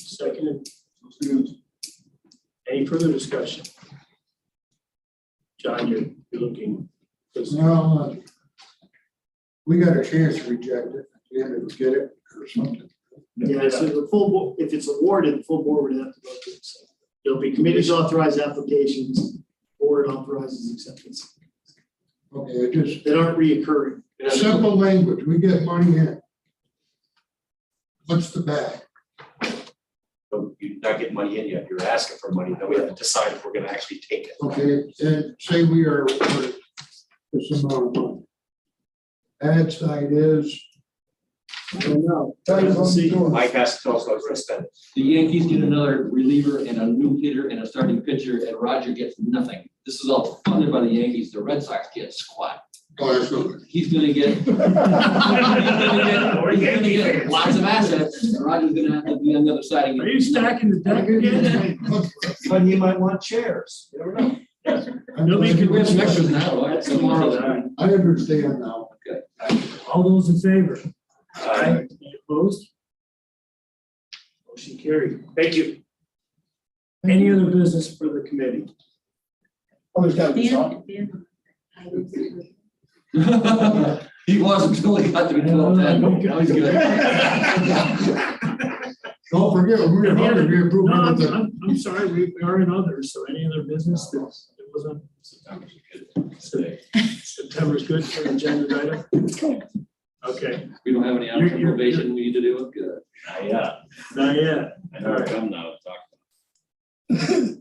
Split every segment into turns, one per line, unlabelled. seconded. Any further discussion? John, you're, you're looking, because
Well, uh, we got a chance to reject it, at the end of get it or something.
Yeah, so the full, bo- if it's awarded, the full board would have to go through. it. So There'll be committees authorize applications, board authorizes acceptance,
Okay, it just,
that aren't reoccurring.
simple language, we get money in. What's the back?
So you're not getting money in yet, you're asking for money, then we have to decide if we're gonna actually take it.
Okay, and say we are awarded this amount of money. Ad side is,
I don't know.
See,
Mike has to tell us what we're gonna spend.
The Yankees get another reliever and a new hitter and a starting pitcher, and Roger gets nothing. This is all funded by the Yankees. The Red Sox get squat.
oh, that's not it.
He's gonna get. he's gonna
We're
get- he's gonna
Yankee
get
fans.
Lots of assets, and Roger's gonna have to be on the other side. and get
Are you stacking the deck again?
But you might want chairs, you never know.
Nobody can win an
Next is now, right?
That's
Tomorrow.
tomorrow.
I understand now.
All those in favor?
Uh,
Any Opposed? Motion carried. Thank you. Any other business for the committee?
Oh, there's gotta
Dan, Dan. I would say-
He was until he got to be twelve ten. Now he's good.
Don't forget, we're gonna be
No,
approving
I'm,
with the,
I'm- I'm sorry, we we are in others, so any other business that that wasn't. September's good for an agenda item? Okay,
We don't have any
You're-
after
you're-
probation we need to do. Good.
Yeah,
not yet.
uh, I
know it's
come now,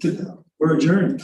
talk.
We're adjourned.